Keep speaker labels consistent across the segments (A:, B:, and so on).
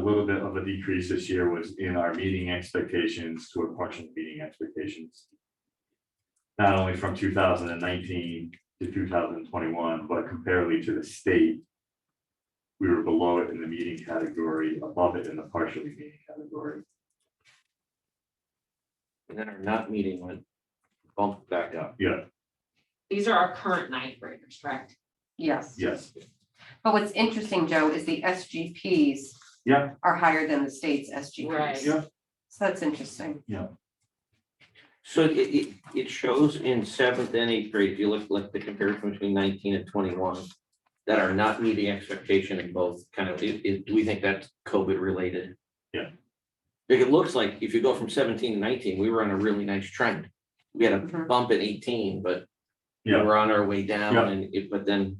A: A little bit of a decrease this year was in our meeting expectations to our partial meeting expectations. Not only from two thousand and nineteen to two thousand and twenty-one, but comparably to the state. We were below it in the meeting category, above it in the partially meeting category.
B: And then our not meeting went bump back up.
A: Yeah,
C: These are our current ninth graders, correct?
D: Yes,
A: yes,
D: but what's interesting, Joe, is the SGPs
A: yeah,
D: are higher than the state's
C: Right.
D: SGPs.
A: Yeah.
D: So that's interesting.
B: So it, it, it shows in seventh and eighth grade, if you look like the comparison between nineteen and twenty-one, that are not meeting expectation in both kind of, it, it- do we think that's COVID related?
A: Yeah.
B: Like, it looks like if you go from seventeen to nineteen, we were on a really nice trend. We had a
C: Mm-hmm.
D: Mhm.
B: bump at eighteen, but we
A: Yeah.
B: we're on our way down
A: Yeah.
B: and it, but then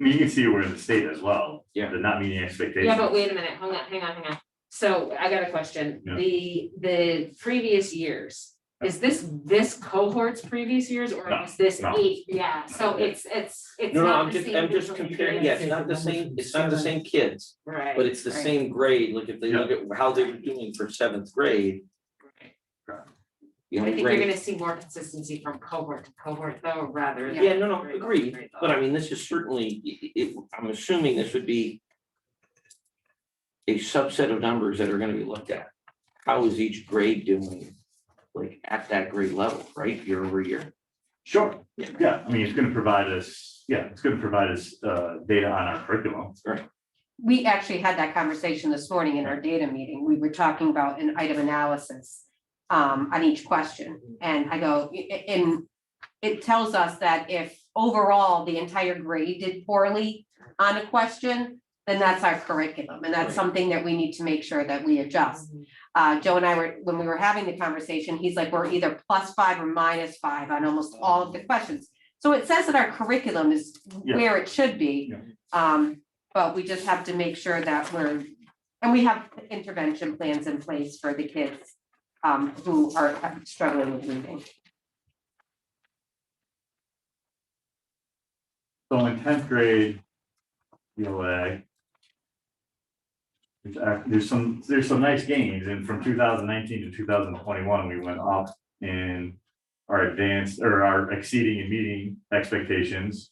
A: I mean, you can see we're in the state as well.
B: Yeah.
A: The not meeting expectations.
C: Yeah, but wait a minute, hang on, hang on, hang on. So I got a question.
A: Yeah.
C: The, the previous years, is this, this cohort's previous years or
A: No,
C: is this
A: no.
C: eight? Yeah, so it's, it's, it's
B: No, no,
C: not
B: I'm
C: the
B: just,
C: same.
B: I'm just
C: group of
B: comparing, yeah,
C: kids.
B: it's not the same, it's not the same kids,
C: Right.
B: but it's the
C: right,
B: same grade, look, if they
A: Yeah.
B: look at how they were doing for seventh grade.
C: right.
B: you
C: I
B: know,
C: think you're
B: grade-
C: gonna see more consistency from cohort to cohort though, rather.
B: Yeah, no, no,
C: than grade
B: agreed,
C: level to
B: but
C: grade
B: I mean, this is certainly, i- i- it, I'm assuming this would be. A subset of numbers that are gonna be looked at, how is each grade doing, like, at that grade level, right, year over year?
A: Sure, yeah, I mean, it's gonna provide us, yeah, it's gonna provide us uh data on our curriculum.
D: We actually had that conversation this morning in our data meeting. We were talking about an item analysis um, on each question. And I go, i- i- and it tells us that if overall the entire grade did poorly on a question, then that's our curriculum. And that's
B: Right.
D: something that we need to make sure that we adjust.
C: level.
D: uh, Joe and I were, when we were having the conversation, he's like, we're either plus five or minus five on almost all of the questions. So it says that our curriculum is
A: Yeah.
D: where it should be.
A: Yeah.
D: Um, but we just have to make sure that we're, and we have intervention plans in place for the kids um, who are struggling with reading.
A: So in tenth grade, ELA. There's, ac- uh, there's some, there's some nice gains, and from two thousand nineteen to two thousand twenty-one, we went up in our advanced, or our exceeding and meeting expectations.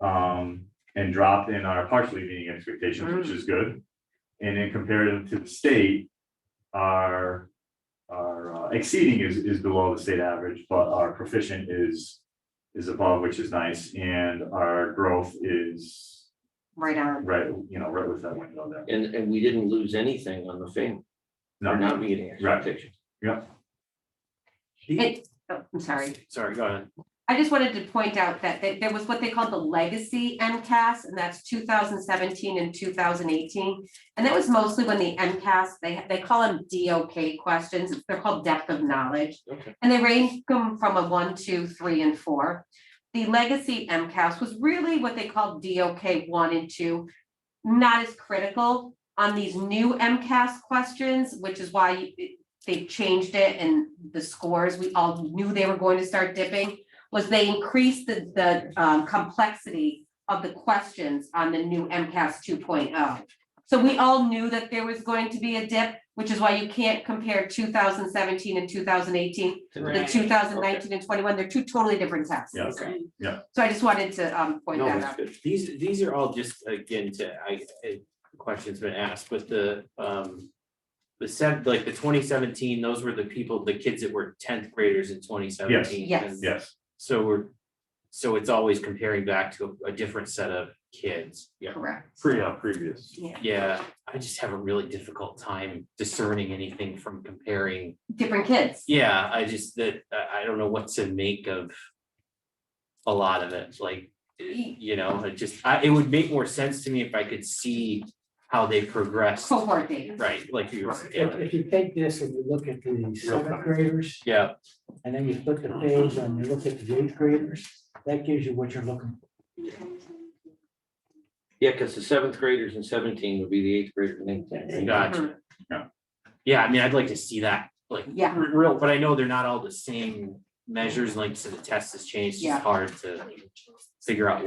A: Um, and dropped in our partially meeting expectations, which is good. And in comparative to the state, our, our uh, exceeding is, is below the state average, but our proficient is, is above, which is nice, and our growth is
D: Right on.
A: right, you know, right with that window there.
B: And, and we didn't lose anything on the thing,
A: No,
B: or not meeting
A: Right.
B: expectations.
D: It, oh, I'm sorry.
B: Sorry, go ahead.
D: I just wanted to point out that that there was what they called the legacy MCAS, and that's two thousand seventeen and two thousand eighteen. And that was mostly when the MCAS, they they call them DOK questions, they're called depth of knowledge.
B: Okay.
D: And they range from from a one, two, three, and four. The legacy MCAS was really what they called DOK one and two. Not as critical on these new MCAS questions, which is why it- they changed it and the scores, we all knew they were going to start dipping was they increased the, the um, complexity of the questions on the new MCAS 2.0. oh. So we all knew that there was going to be a dip, which is why you can't compare 2017 and 2018. The
C: Right.
D: 2019 and 21, they're two totally different tests.
A: Yeah.
B: Okay.
D: So I just wanted to um, point
B: No,
D: that
B: that's
D: out.
B: good.
E: These, these are all just, again, to, I, I- questions been asked, but the, um. The sev like the twenty seventeen, those were the people, the kids that were tenth graders in twenty seventeen.
D: Yes.
A: Yes,
E: So we're, so it's always comparing back to a different set of kids. Yeah.
D: Correct.
A: pre, uh, previous.
D: Yeah,
E: Yeah, I just have a really difficult time discerning anything from comparing
D: different kids.
E: yeah, I just that I I don't know what to make of a lot of it, like,
D: Y-
E: you know, it just, I, it would make more sense to me if I could see how they progressed,
D: Cohort data.
E: right, like you were,
F: If, if you take this and you look at the seventh graders,
E: yeah,
F: and then you flip the page and you look at the eighth graders, that gives you what you're looking for.
B: Yeah, because the seventh graders in seventeen would be the eighth graders in eighteen.
E: gotcha.
A: Yeah.
E: Yeah, I mean, I'd like to see that, like,
D: Yeah.
E: r- real, but I know they're not all the same measures, like, so the test has changed,
D: Yeah.
E: it's hard to, figure out